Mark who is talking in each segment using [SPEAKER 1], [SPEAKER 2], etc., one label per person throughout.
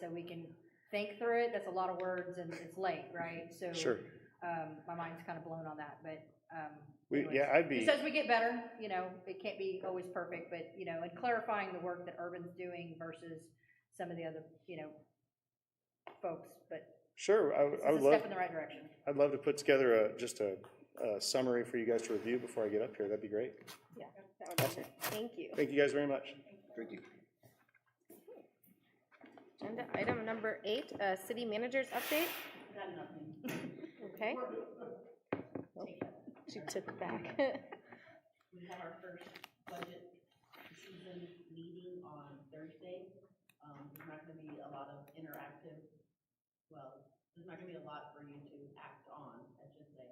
[SPEAKER 1] so we can think through it. That's a lot of words and it's late, right? So
[SPEAKER 2] Sure.
[SPEAKER 1] um, my mind's kind of blown on that, but. um,
[SPEAKER 2] We,
[SPEAKER 1] anyways.
[SPEAKER 2] yeah, I'd be,
[SPEAKER 1] Just as we get better, you know, it can't be always perfect, but, you know, and clarifying the work that Urban's doing versus some of the other, you know, folks, but
[SPEAKER 2] sure, I, would- I would
[SPEAKER 1] it's a
[SPEAKER 2] love,
[SPEAKER 1] step in the right direction.
[SPEAKER 2] I'd love to put together a, just a, a summary for you guys to review before I get up here. That'd be great.
[SPEAKER 3] That would be good. Thank you.
[SPEAKER 2] Thank you guys very much.
[SPEAKER 4] Thank you.
[SPEAKER 3] Agenda item number eight, uh, city manager's update. Okay. Nope, She took it back.
[SPEAKER 5] We have our first budget season meeting on Thursday. Um, there's not gonna be a lot of interactive, well, there's not gonna be a lot for you to act on, I should say.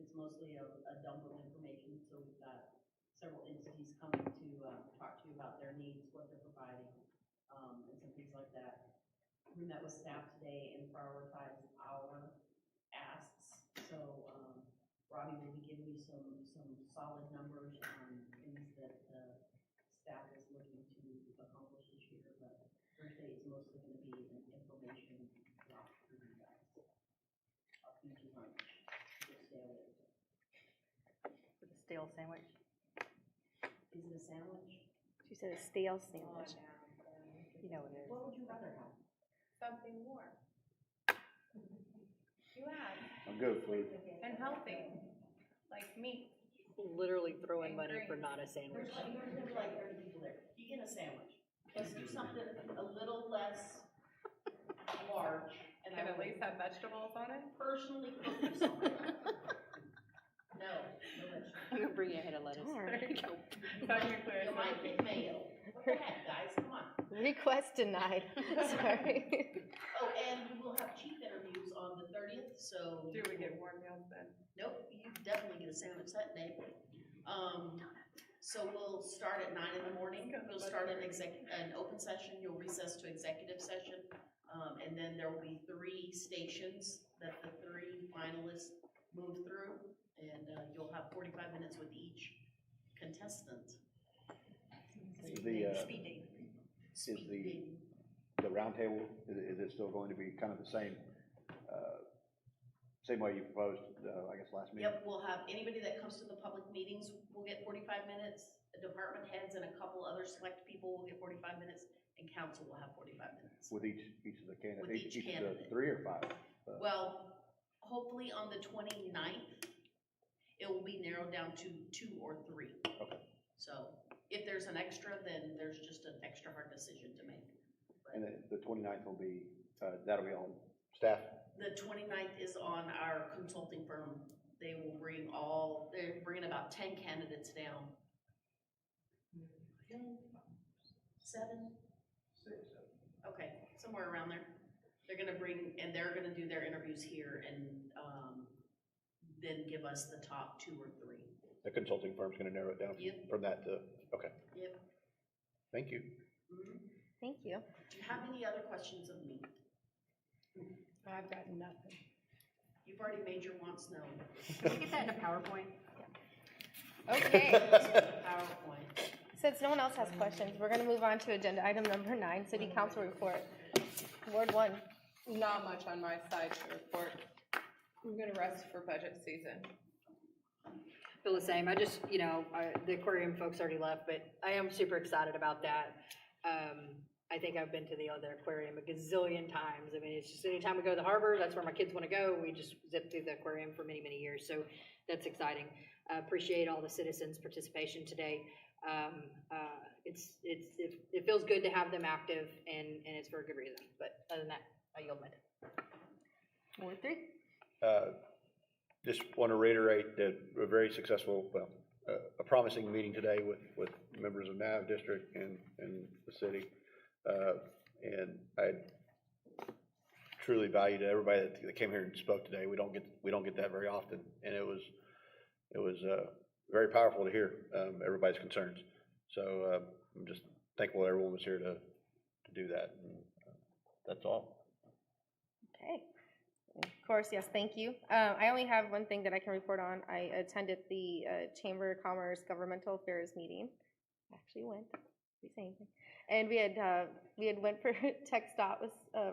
[SPEAKER 5] It's mostly a, a dump of information, so we've got several entities coming to, uh, talk to you about their needs, what they're providing, um, and some things like that. We met with staff today and prioritized our asks, so, um, Robbie will be giving you some, some solid numbers on things that the staff is looking to accomplish this year, but Thursday is mostly gonna be an information block for you guys. I'll feed you lunch, just stay away.
[SPEAKER 1] With a stale sandwich.
[SPEAKER 5] Is it a sandwich?
[SPEAKER 3] She said a stale sandwich.
[SPEAKER 1] You know what it is.
[SPEAKER 5] What would you rather have?
[SPEAKER 6] something more. You have,
[SPEAKER 4] I'm good for it.
[SPEAKER 6] and healthy, like meat.
[SPEAKER 7] literally throwing money for not a sandwich.
[SPEAKER 5] There's like, there's gonna be like thirty people there, you get a sandwich, let's do something a little less large, and I
[SPEAKER 6] Can at
[SPEAKER 5] would
[SPEAKER 6] least have vegetables on it.
[SPEAKER 5] personally cook you something. No, no vegetables.
[SPEAKER 7] I'm gonna bring you a head of lettuce.
[SPEAKER 3] Darn.
[SPEAKER 6] There you go. Technically,
[SPEAKER 5] You
[SPEAKER 6] it's
[SPEAKER 5] might get mayo. What the heck, guys, come on.
[SPEAKER 3] Request denied. Sorry.
[SPEAKER 5] Oh, and we will have chief interviews on the thirtieth, so.
[SPEAKER 6] Do we get warm meals then?
[SPEAKER 5] Nope, you definitely get a sandwich that day. Um, so we'll start at nine in the morning, we'll start an exec, an open session, you'll recess to executive session. Um, and then there will be three stations that the three finalists move through, and, uh, you'll have forty-five minutes with each contestant.
[SPEAKER 4] Is the, uh,
[SPEAKER 5] Speed dating.
[SPEAKER 4] the-
[SPEAKER 5] Speed dating.
[SPEAKER 4] the roundtable, is, is it still going to be kind of the same, uh, same way you proposed, uh, I guess, last meeting?
[SPEAKER 5] Yep, we'll have, anybody that comes to the public meetings will get forty-five minutes, the department heads and a couple other select people will get forty-five minutes, and council will have forty-five minutes.
[SPEAKER 4] With each, each of the
[SPEAKER 5] With
[SPEAKER 4] candidates,
[SPEAKER 5] each
[SPEAKER 4] each of the
[SPEAKER 5] candidate.
[SPEAKER 4] three or five?
[SPEAKER 5] Well, hopefully on the 29th, it will be narrowed down to two or three.
[SPEAKER 4] Okay.
[SPEAKER 5] So if there's an extra, then there's just an extra hard decision to make.
[SPEAKER 4] And then the 29th will be, uh, that'll be on staff?
[SPEAKER 5] The 29th is on our consulting firm. They will bring all, they're bringing about ten candidates down. Seven? Okay, somewhere around there. They're gonna bring, and they're gonna do their interviews here and, um, then give us the top two or three.
[SPEAKER 4] The consulting firm's gonna narrow it down
[SPEAKER 5] Yep.
[SPEAKER 4] from that to, okay.
[SPEAKER 5] Yep.
[SPEAKER 4] Thank you.
[SPEAKER 5] Mhm.
[SPEAKER 3] Thank you.
[SPEAKER 5] Do you have any other questions of me?
[SPEAKER 7] I've got nothing.
[SPEAKER 5] You've already made your wants known.
[SPEAKER 1] Can we get that in a PowerPoint?
[SPEAKER 3] Okay.
[SPEAKER 5] PowerPoint.
[SPEAKER 3] Since no one else has questions, we're going to move on to agenda item number nine, city council report. Ward one.
[SPEAKER 6] Not much on my side to report. I'm gonna rest for budget season.
[SPEAKER 1] Feel the same. I just, you know, I- the aquarium folks already left, but I am super excited about that. Um, I think I've been to the other aquarium a gazillion times. I mean, it's just anytime we go to the harbor, that's where my kids want to go. We just zip through the aquarium for many, many years, so that's exciting. I Appreciate all the citizens' participation today. Um, uh, It's, it's, it it feels good to have them active, and, and it's for a good reason. But other than that, I yield my time.
[SPEAKER 3] Ward three.
[SPEAKER 4] Uh, Just want to reiterate that a very successful, well, uh, a promising meeting today with, with members of NAV district and, and the city. Uh, And I truly value to everybody that that came here and spoke today. We don't get, we don't get that very often. And it was, it was uh, very powerful to hear um, everybody's concerns. So uh, I'm just thankful everyone was here to, to do that. And uh, That's all.
[SPEAKER 3] Okay. Of course, yes, thank you. Um, I only have one thing that I can report on. I attended the uh, Chamber of Commerce Governmental Affairs meeting. Actually went, didn't say anything. and we had, uh, we had went for tech stop with, uh,